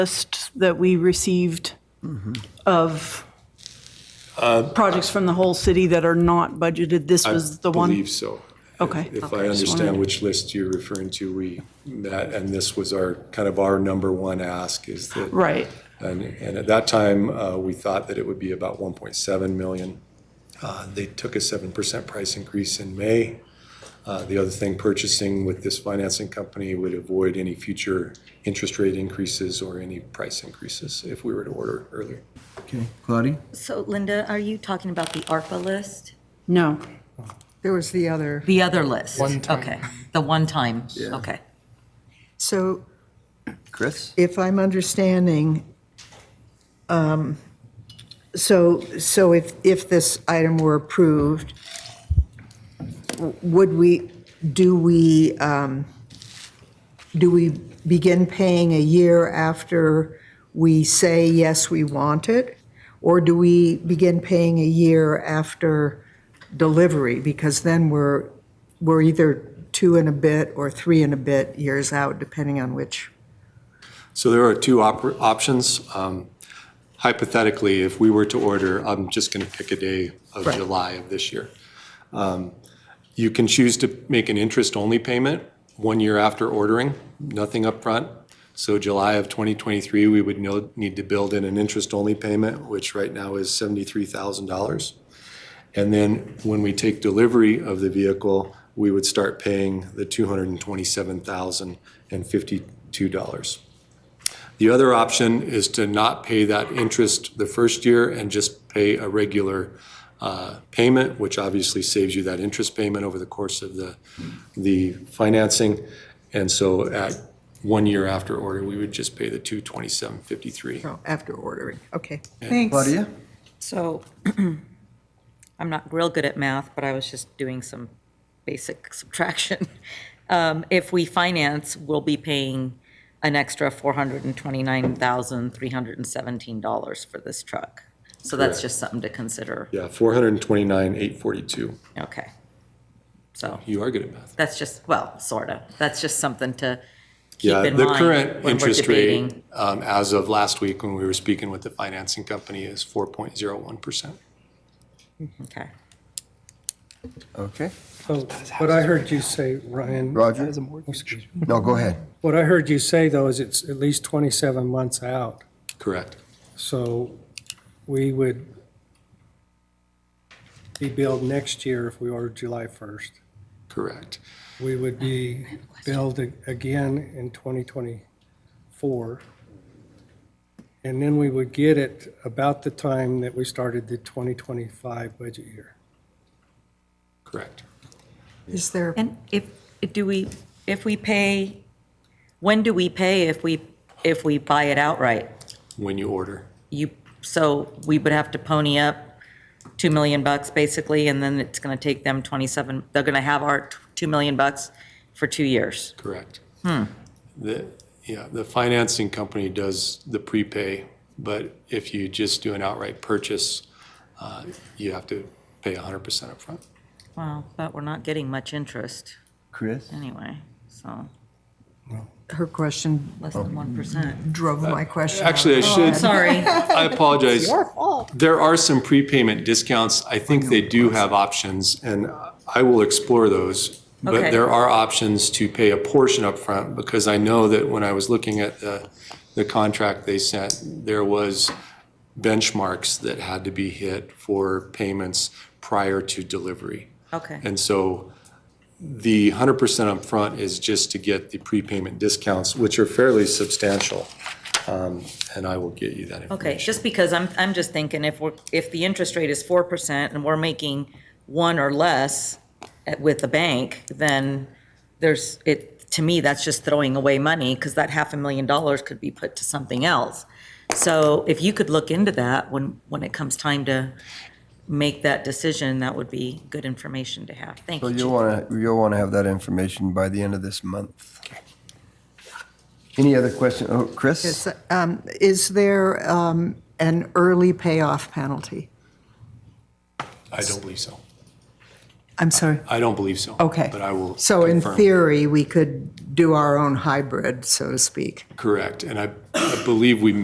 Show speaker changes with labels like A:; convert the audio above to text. A: list that we received of projects from the whole city that are not budgeted. This was the
B: I
A: one?
B: believe so.
A: Okay.
B: If
A: Okay,
B: I
A: just
B: understand
A: wanted-
B: which list you're referring to, we, that, and this was our, kind of our number one ask is that.
A: Right.
B: And, and at that time, uh, we thought that it would be about one point seven million. Uh, they took a seven percent price increase in May. Uh, the other thing, purchasing with this financing company would avoid any future interest rate increases or any price increases if we were to order earlier.
C: Okay, Claudia?
D: So Linda, are you talking about the ARPA list?
A: No.
E: There was the other.
D: The other list?
F: One time.
D: Okay, the one time, okay.
E: So
C: Chris?
E: if I'm understanding, um, so, so if, if this item were approved, w- would we, do we, um, do we begin paying a year after we say, yes, we want it? Or do we begin paying a year after delivery? Because then we're, we're either two and a bit or three and a bit years out, depending on which
B: So there are two op- options. Um, Hypothetically, if we were to order, I'm just going to pick a day of July of this year. Um, You can choose to make an interest-only payment one year after ordering, nothing upfront. So July of 2023, we would know- need to build in an interest-only payment, which right now is $73,000. And then when we take delivery of the vehicle, we would start paying the $227,052. The other option is to not pay that interest the first year and just pay a regular uh, payment, which obviously saves you that interest payment over the course of the, the financing. And so at one year after order, we would just pay the 227.53.
E: Oh, after ordering, okay, thanks.
C: Claudia?
D: So I'm not real good at math, but I was just doing some basic subtraction. Um, If we finance, we'll be paying an extra $429,317 for this truck. So that's
B: Correct.
D: just something to consider.
B: Yeah, 429.842.
D: Okay. So
B: You are good at math.
D: that's just, well, sort of. That's just something to keep
B: Yeah,
D: in mind.
B: the current
D: when we're
B: interest rate,
D: debating.
B: um, as of last week when we were speaking with the financing company, is 4.01%.
D: Okay.
C: Okay.
F: So Oh, what I heard you say, Ryan.
C: Roger?
F: Excuse me.
C: No, go ahead.
F: What I heard you say, though, is it's at least 27 months out.
B: Correct.
F: So we would be billed next year if we ordered July 1st.
B: Correct.
F: We would be billed a- again in 2024. And then we would get it about the time that we started the 2025 budget year.
B: Correct.
E: Is there,
D: And if, do we, if we pay, when do we pay if we, if we buy it outright?
B: When you order.
D: You, so we would have to pony up 2 million bucks basically, and then it's going to take them 27, they're going to have our 2 million bucks for two years.
B: Correct.
D: Hmm.
B: The, yeah, the financing company does the prepay, but if you just do an outright purchase, uh, you have to pay 100% upfront.
D: Well, but we're not getting much interest
C: Chris?
D: anyway, so
E: her question
D: less than 1%.
E: drove my question.
B: Uh,
E: Oh,
B: Actually, I
D: I'm
B: should,
D: sorry.
B: I apologize. There are some prepayment discounts. I think they do have options, and I will explore those.
D: Okay.
B: But there are options to pay a portion upfront, because I know that when I was looking at the, the contract they sent, there was benchmarks that had to be hit for payments prior to delivery.
D: Okay.
B: And so the 100% upfront is just to get the prepayment discounts, which are fairly substantial. Um, And I will get you that information.
D: Okay, just because I'm, I'm just thinking if we're, if the interest rate is four percent and we're making one or less at- with the bank, then there's, it, to me, that's just throwing away money because that half a million dollars could be put to something else. So if you could look into that when, when it comes time to make that decision, that would be good information to have. Thank
C: So
D: you.
C: you'll
D: Chief.
C: want to, you'll want to have that information by the end of this month. Any other question? Oh, Chris?
E: Yes, um, Is there um, an early payoff penalty?
B: I don't believe so.
E: I'm sorry,
B: I don't believe so.
E: okay.
B: But I will.
E: So in
B: confirm.
E: theory, we could do our own hybrid, so to speak.
B: Correct. And I I believe we